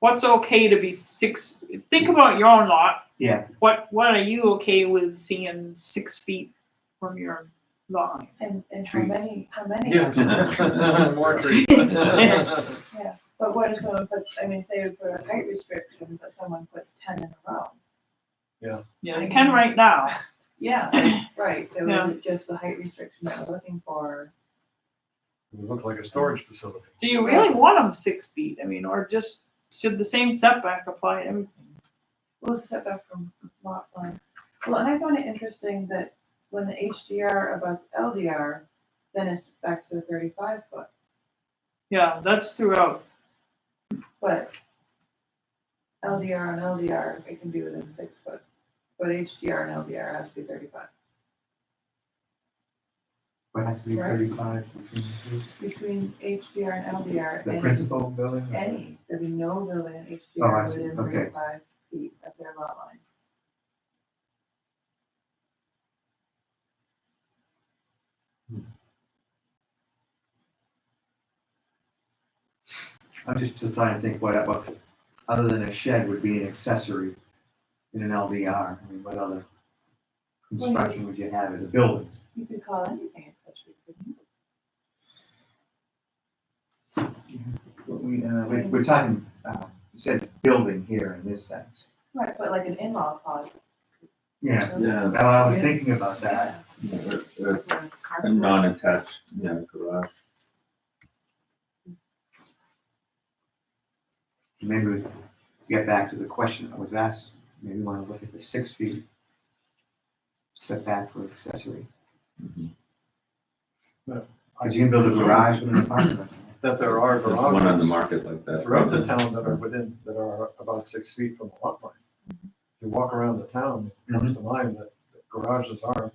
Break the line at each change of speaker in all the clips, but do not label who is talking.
what's okay to be six, think about your own lot.
Yeah.
What, what are you okay with seeing six feet from your line?
And, and how
Trees.
many, how many?
More trees.
But what if someone puts, I mean, say we put a height restriction, but someone puts ten in a row?
Yeah, they can right now.
Yeah, right, so
Yeah.
is it just the height restriction that we're looking for?
It looked like a storage facility.
Do you really want them six feet? I mean, or just, should the same setback apply to everything?
We'll step back from lot line. Well, and I found it interesting that when the HDR abuts LDR, then it's back to the thirty-five foot,
Yeah, that's throughout.
but LDR and LDR, it can be within six foot, but HDR and LDR has to be thirty-five.
But it has to be
Right.
thirty-five between the two.
Between HDR and LDR,
the
any,
principal building. or-
any, there'd be no building in
Oh, I
HDR
see.
within
Okay.
thirty-five feet of their lot line.
I'm just, just trying to think what, what, other than a shed would be an accessory in an LDR, I mean, what other construction would you have as a building?
You could call anything accessory, couldn't you?
We, uh, we- we're talking, uh, it says building here in this sense.
Right, but like an in-law pod.
Yeah,
Yeah,
well, I was thinking about that,
a a non-attached, yeah, garage.
maybe we get back to the question that was asked, maybe we wanna look at the six feet setback for accessory, because you can build a garage with an apartment.
That there are
There's one on the
garages
market like that.
throughout the town that are within, that are about six feet from the lot line.
Mm-hmm.
You walk around the town, it comes to mind that garages are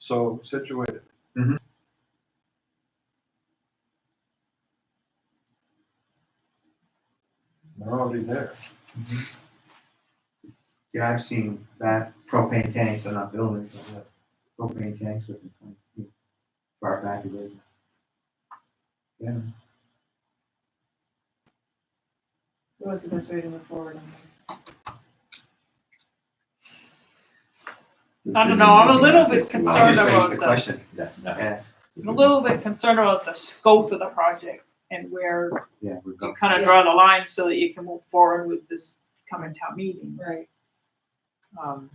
so situated.
Mm-hmm.
They're already there.
Yeah, I've seen that propane tanks are not buildings, but yeah, propane tanks with twenty feet far back of it. Yeah,
So what's the best way to move forward on this?
This
I don't
isn't
know, I'm a
looking
little
like
bit
it's too
I
concerned
just raised
obvious.
about
the
the-
question.
Yeah, no.
Yeah,
I'm a little bit concerned about the scope of the project and where
yeah, we've
you
got,
kind of draw the line so that you can move forward with this coming town meeting.
Right,
Um,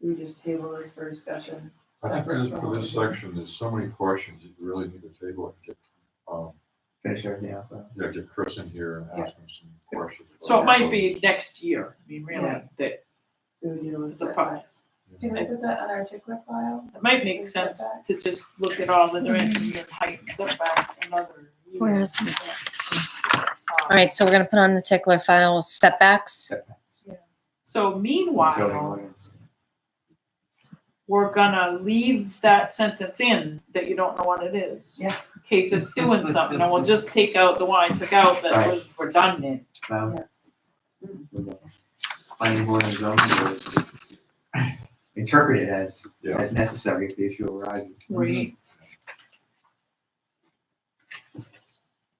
we just table this for discussion.
I think
separate
this,
from
for
all
this
of them.
section, there's so many questions that you really need to table and get, um,
finish everything else up.
yeah, get Chris in here and ask him some questions.
so it might be next year, I mean, really,
Yeah.
that
So we deal with
it's a
setbacks.
project.
Can we put that on our tickler file?
It might make sense to just look at all the dimensions and height and setback and other. use.
Where is it?
Um,
All right, so we're gonna put on the tickler file setbacks.
So
Zoning
meanwhile,
ordinance.
we're gonna leave that sentence in that you don't know what it is.
Yeah.
In case it's doing something, and we'll just take out the one I took out that
Right.
was redundant.
Now-
Yeah.
With the Um, Mm-hmm. Planning board and zoning board is interpreted as,
Yeah.
as necessary if the issue arises.
Right.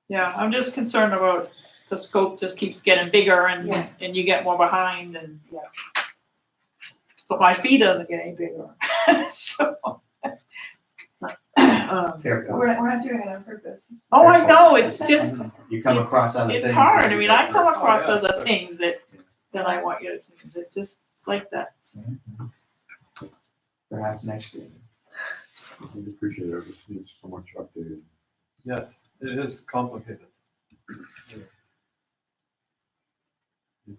Yeah, I'm just concerned about the scope just keeps getting bigger and,
Yeah.
and you get more behind and, yeah. But my fee doesn't get any bigger, so. Um,
Fair
We're, not- we're not doing it on purpose.
Oh, I know, it's just,
point. You come across other things.
it's hard, I mean, I come
Oh,
across
yeah.
other things that, that I want you to, change. it just, it's like that.
Perhaps next year.
We'd appreciate it, this needs so much updated.
Yes, it is complicated. You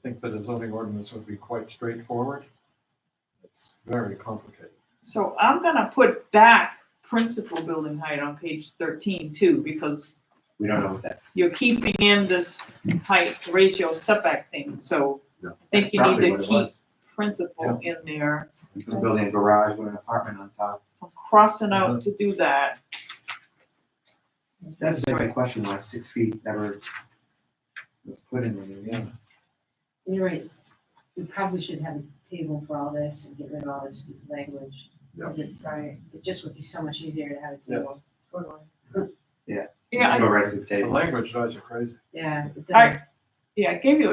think that a zoning ordinance would be quite straightforward? It's very complicated.
So I'm gonna put back principal building height on page thirteen too, because
We don't know what that.
you're keeping in this height ratio setback thing, so I
Yeah.
think you
probably
need
what
to
it
keep
was.
principle in there.
You can build a garage with an apartment on top.
So I'm crossing
Uh-huh.
out to do that.
That's a great question, why six feet never was put in there, yeah.
You're right. We probably should have a table for all this and get rid of all this language. Because it's,
Right,
it just would be so much easier to have a
Yes.
table.
totally.
Yeah,
Go
I,
right to the
The
table.
language drives you crazy.
Yeah, it
All right.
does.
yeah, I gave you a